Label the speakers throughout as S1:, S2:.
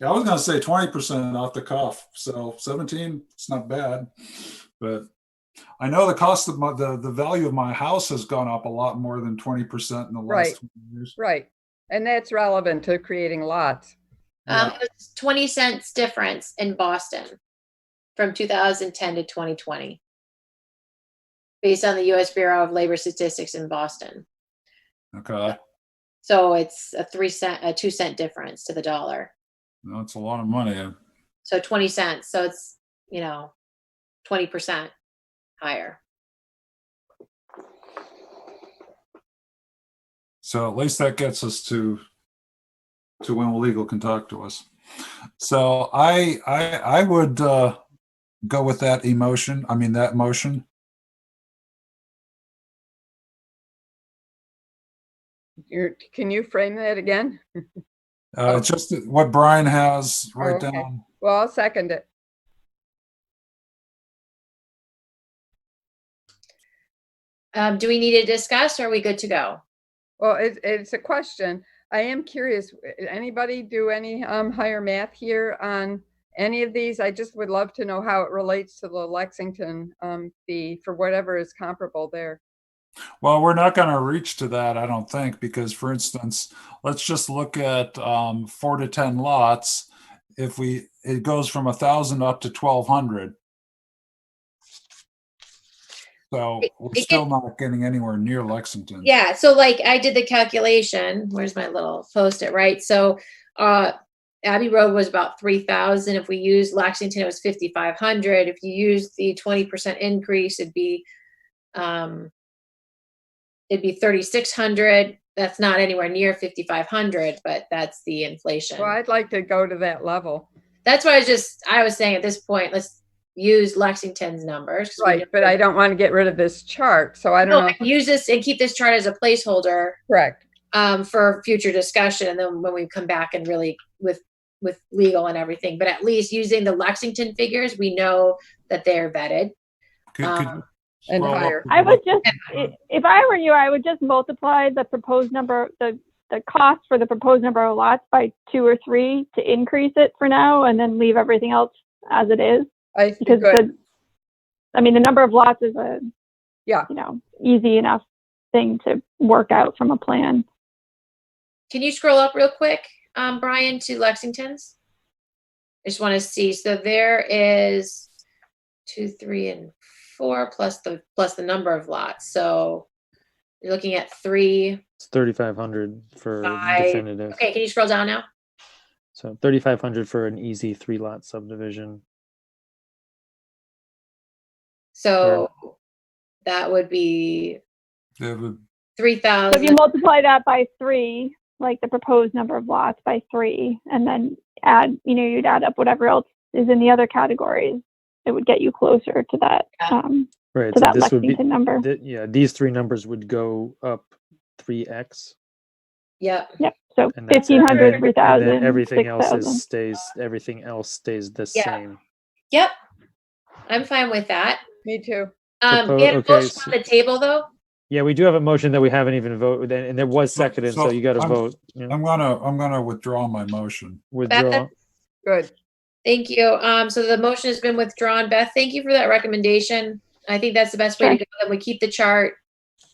S1: Yeah, I was gonna say twenty percent off the cuff, so seventeen, it's not bad. But I know the cost of my, the, the value of my house has gone up a lot more than twenty percent in the
S2: Right.
S1: last 20 years.
S2: Right. And that's relevant to creating lots.
S1: Yeah.
S3: Um, it's twenty cents difference in Boston from two thousand ten to twenty twenty. Based on the US Bureau of Labor Statistics in Boston.
S1: Okay,
S3: So it's a three cent, a two cent difference to the dollar.
S1: that's a lot of money.
S3: So twenty cents, so it's, you know, twenty percent higher.
S1: So at least that gets us to, to when legal can talk to us. So I, I, I would, uh, go with that emotion, I mean, that motion.
S2: You're, can you frame that again?
S1: Uh, it's just what Brian has right
S2: Oh. Okay.
S1: down.
S2: Well, I'll second it.
S3: Um, do we need to discuss or are we good to go?
S2: Well, it's, it's a question. I am curious, w- anybody do any um, higher math here on any of these? I just would love to know how it relates to the Lexington um, fee for whatever is comparable there.
S1: Well, we're not going to reach to that, I don't think, because for instance, let's just look at um, four to 10 lots. If we, it goes from a thousand up to 1,200. So
S3: It-
S1: we're
S3: it
S1: still not getting anywhere near Lexington.
S3: Yeah, so like I did the calculation, where's my little post-it, right? So, uh, Abbey Road was about three thousand, if we used Lexington, it was fifty-five hundred, if you use the twenty percent increase, it'd be, um, it'd be thirty-six hundred, that's not anywhere near fifty-five hundred, but that's the inflation.
S2: Well, I'd like to go to that level.
S3: That's why I was just, I was saying at this point, let's use Lexington's numbers. 'cause we
S2: Right,
S3: know
S2: but
S3: that-
S2: I don't want to get rid of this chart, so I
S3: No,
S2: don't know.
S3: I can use this and keep this chart as a placeholder
S2: Correct.
S3: um, for future discussion and then when we come back and really with with legal and everything but at least using the lexington figures we know that they're vetted
S1: Could- could you
S3: Um,
S2: and
S1: scroll up
S2: higher.
S1: to
S4: I
S1: the-
S4: would just, i- if I were you, I would just multiply the proposed number, the, the cost for the proposed number of lots by two or three to increase it for now and then leave everything else as it is.
S2: I think
S4: Because
S2: good.
S4: the, I mean, the number of lots is a,
S2: Yeah.
S4: you know, easy enough thing to work out from a plan.
S3: can you scroll up real quick um, brian to lexington's i just want to see so there is two three and four plus the plus the number of lots so you're looking at three
S5: It's thirty-five hundred for
S3: Five.
S5: definitive.
S3: okay can you scroll down now
S5: So thirty-five hundred for an easy three-lot subdivision.
S3: so that would be
S1: It would-
S4: So if you
S3: 3000
S4: multiply that by three, like the proposed number of lots by three, and then add, you know, you'd add up whatever else is in the other categories, it would get you closer to that,
S3: Yeah.
S4: um,
S5: Right.
S4: to
S5: so
S4: that
S5: this would be
S4: Lexington number.
S5: thi- yeah, these three numbers would go up three X
S3: yep
S4: Yep, so
S5: and that's it.
S4: fifteen hundred, three
S5: and then
S4: thousand,
S5: everything
S4: six
S5: else
S4: thousand.
S5: is stays everything else stays the
S3: Yeah.
S5: same.
S3: Yep. I'm fine with that.
S2: Me too.
S3: Um,
S5: Propo-
S3: we had a
S5: okay,
S3: motion
S5: so-
S3: on the table though.
S5: Yeah, we do have a motion that we haven't even voted and and there was
S1: So-
S5: seconded,
S1: so
S5: so you gotta
S1: I'm-
S5: vote. you know,
S1: I'm gonna, I'm gonna withdraw my motion.
S5: Withdraw.
S2: Good.
S3: Thank you. Um, so the motion has been withdrawn. Beth, thank you for that recommendation. I think that's the best way to
S4: Sure.
S3: go. Then we keep the chart.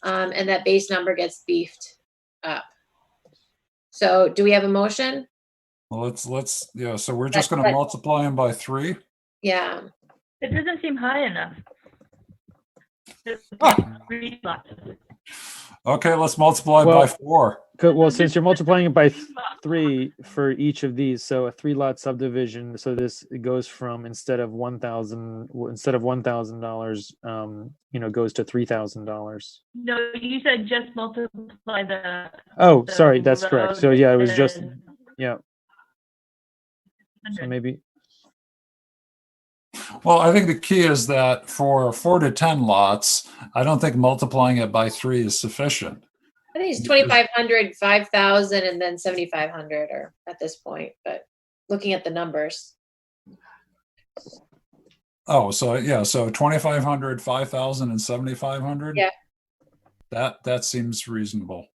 S3: Um, and that base number gets beefed up. So do we have a motion?
S1: Well, let's, let's, yeah, so we're just
S3: Right,
S1: gonna
S3: right.
S1: multiply them by three.
S3: Yeah.
S6: It doesn't seem high enough. Just three lots.
S1: Okay, let's multiply by
S5: Well-
S1: four.
S5: Co- Well, since you're multiplying it by th-
S6: lots.
S5: three for each of these. So a three lot subdivision. So this goes from instead of one thousand instead of one thousand dollars, um, you know, goes to three thousand dollars.
S6: No, you said just multiply the.
S5: Oh,
S6: the
S5: sorry, that's correct. So
S6: road
S5: yeah, it was just
S6: and
S5: yeah. So maybe
S1: Well, I think the key is that for four to 10 lots, I don't think multiplying it by three is sufficient.
S3: I think it's 2,500, 5,000 and then 7,500 or at this point, but looking at the numbers.
S1: Oh, so yeah, so 2,500, 5,000 and 7,500?
S3: Yeah.
S1: That, that seems reasonable.